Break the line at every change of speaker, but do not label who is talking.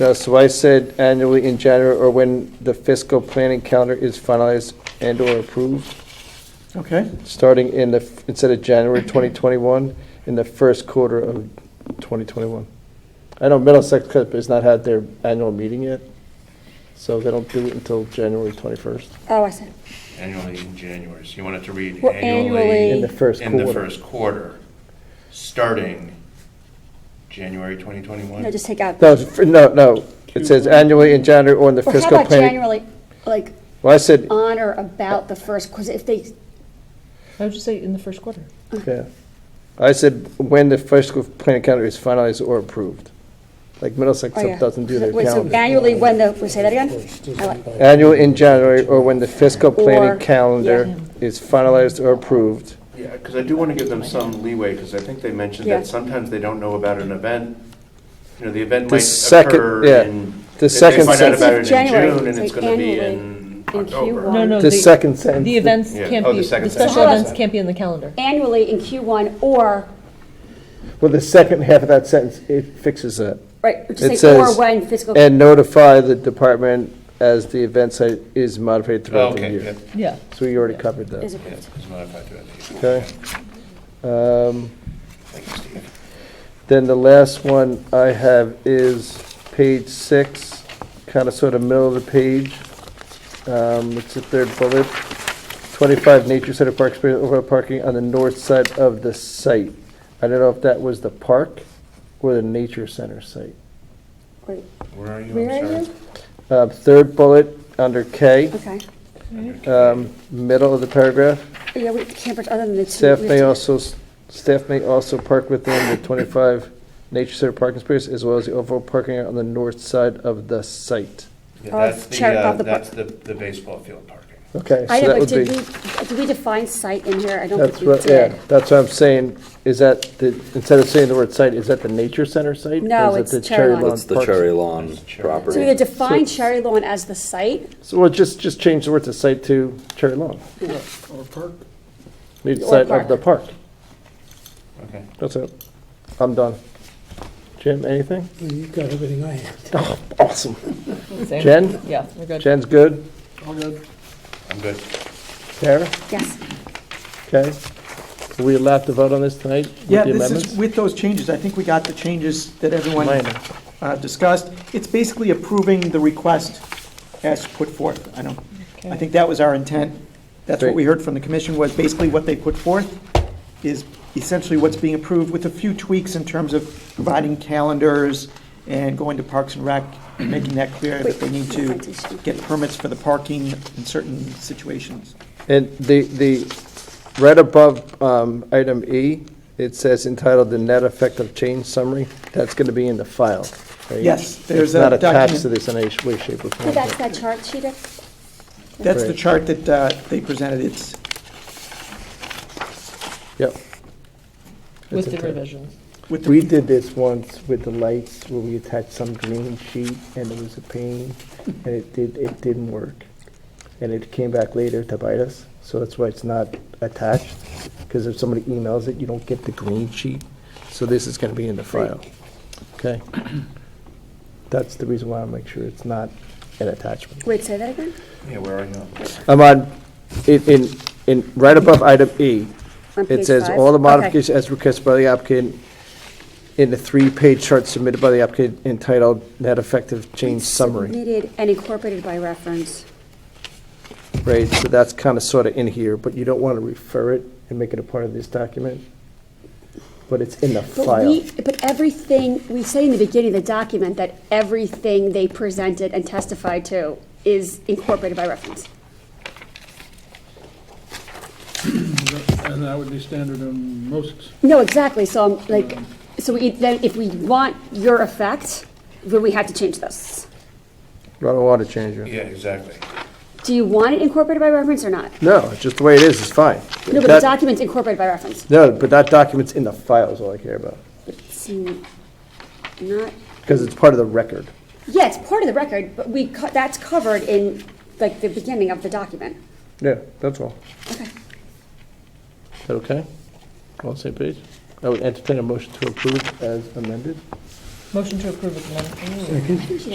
No, so I said annually in January or when the fiscal planning calendar is finalized and/or approved,
Okay,
starting in the, instead of January 2021, in the first quarter of 2021. I know Middlesex Clip has not had their annual meeting yet, so they don't do it until January 21st,
Oh, I see.
Annually in January, so you want it to read
Well,
annually.
annually-
in the first
In the
quarter.
first quarter, starting January 2021?
No, just take out.
No, it's- no, no, it says annually in January or in the
Or how
fiscal
about
planning.
January, like,
Well, I said,
on or about the first, because if they, oh,
I would just say in the first quarter.
yeah, I said when the fiscal planning calendar is finalized or approved. Like Middlesex
oh, yeah.
Clip doesn't do their
Wait, so
calendar.
Annually, when the, we say that again? I like-
Annual in January or when the fiscal
Or-
planning calendar is finalized or approved.
Yeah, because I do want to give them some leeway, because I think they mentioned
Yeah.
that sometimes they don't know about an event. You know, the event
The
might
second-
occur
yeah.
in.
The
they-
second
They find out
sentence.
about it in
January,
June, and
say
it's going to be
annually
in
in
October.
Q1.
No, no.
The
the-
second sentence.
The events
Yeah.
can't
Oh, the
be,
second
the special
sentence.
events can't be in the calendar.
Annually in Q1 or,
Well, the second half of that sentence, it fixes that.
right,
It
just say or
says,
when fiscal.
And notify the department as the event site is modified throughout the
Oh, Okay, yeah,
year.
Yeah.
So we already covered that,
Is
yeah,
approved.
it's modified throughout the year.
okay? Um,
Thank you, Steve.
Then the last one I have is page six, kind of sort of middle of the page. Um, It's the third bullet. 25 Nature Center Park Space overall parking on the north side of the site. I don't know if that was the park or the nature center site.
Wait,
Where are you?
Where
I'm
are
sorry.
you?
Uh, Third bullet, under K,
Okay.
um, middle of the paragraph.
Yeah, we can't, put other than the two.
Staff
we have
may
to-
also, staff may also park within the 25 nature center parking space as well as the overall parking area on the north side of the site.
Yeah,
Oh,
That's the,
cherry
uh,
above the
that's the, the baseball field parking.
Okay,
I
so that
know, but
would
did
be,
we, did we define site in here? I don't
that's
think we
what, yeah,
did.
that's what I'm saying, is that, the instead of saying the word site, is that the nature center site? Or
No,
is it
it's
the
Cherry Lawn.
Lawn
It's the
Park?
Cherry Lawn
It's cherry.
So we either
property.
define
So-
Cherry Lawn as the site,
So we'll just, just change the word to site to Cherry Lawn,
or park.
nature
Or
site of
park.
the park,
Okay.
that's it, I'm done. Jim, anything? Oh,
You've got everything I have.
Awesome.
Same.
Jen?
Yeah, we're good.
Jen's good,
All good.
I'm good.
Tara,
yes.
okay, are we allowed to vote on this tonight? with
Yeah,
the
this is
amendments?
with those changes. I think we got the changes that everyone
Minor.
uh, discussed. It's basically approving the request as put forth. I don't, I
Okay.
think that was our intent. That's what
Great.
we heard from the commission was basically what they put forth is essentially what's being approved with a few tweaks in terms of providing calendars and going to Parks and Rec, and making that clear that they need to get permits for the parking in certain situations.
And the, the, right above um, item E, it says entitled the net effect of change summary. That's going to be in the file, right?
Yes, there's
It's not
a
attached
document.
to this in any sh- way, shape, or
So
form.
that's that chart sheet up?
That's the
Right.
chart that uh, they presented. It's
Yep. It's
With the
okay.
revisions.
with the.
We did this once with the lights, where we attached some green sheet, and it was a pain, and it did, it didn't work. And it came back later to bite us, so that's why it's not attached, because if somebody emails it, you don't get the green sheet. So this is gonna be in the file, okay? That's the reason why I make sure it's not an attachment.
Wait, say that again?
Yeah, where are you?
I'm on, in, in, in, right above item E,
On
it
page
says,
five?
all the
Okay.
modifications as requested by the applicant in the three-page chart submitted by the applicant entitled net effective change summary.
Submitted and incorporated by reference.
Right, so that's kind of sort of in here, but you don't want to refer it and make it a part of this document, but it's in the
But
file.
we, but everything, we say in the beginning of the document that everything they presented and testified to is incorporated by reference.
And that would be standard in most,
No, exactly, so I'm like, so we, then if we want your effect, then we have to change this.
Run a water changer.
Yeah, exactly.
Do you want it incorporated by reference or not?
No, just the way it is, is fine.
No, but the
That-
document's incorporated by reference.
No, but that document's in the file is all I care about,
It's n- not,
because it's part of the record.
yeah, it's part of the record, but we, co- that's covered in, like, the beginning of the document.
Yeah, that's all.
Okay.
Is that okay? On the same page? I would entertain a motion to approve as amended.
Motion to approve is amended. Ooh.